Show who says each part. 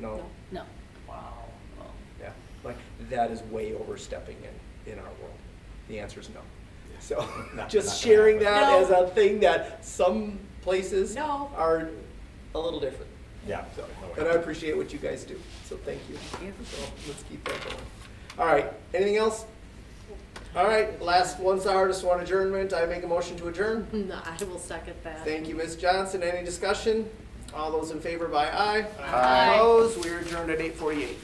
Speaker 1: No?
Speaker 2: No.
Speaker 1: Wow.
Speaker 2: Well,
Speaker 1: Yeah, like, that is way overstepping in, in our world. The answer is no. So,
Speaker 3: Not-
Speaker 1: just
Speaker 3: not gonna
Speaker 1: sharing that
Speaker 2: happen.
Speaker 1: as a thing that some places
Speaker 2: No.
Speaker 1: are a little different.
Speaker 3: Yeah.
Speaker 1: So,
Speaker 3: no way.
Speaker 1: and I appreciate what you guys do, so thank you.
Speaker 2: you.
Speaker 1: So, let's keep that going. All right, anything else? All right, last one's artist, one adjournment, I make a motion to adjourn.
Speaker 2: No, I will second that.
Speaker 1: Thank you, Ms. Johnson. Any discussion? All those in favor by aye.
Speaker 2: Aye.
Speaker 1: Opposed? We are adjourned at eight forty-eight.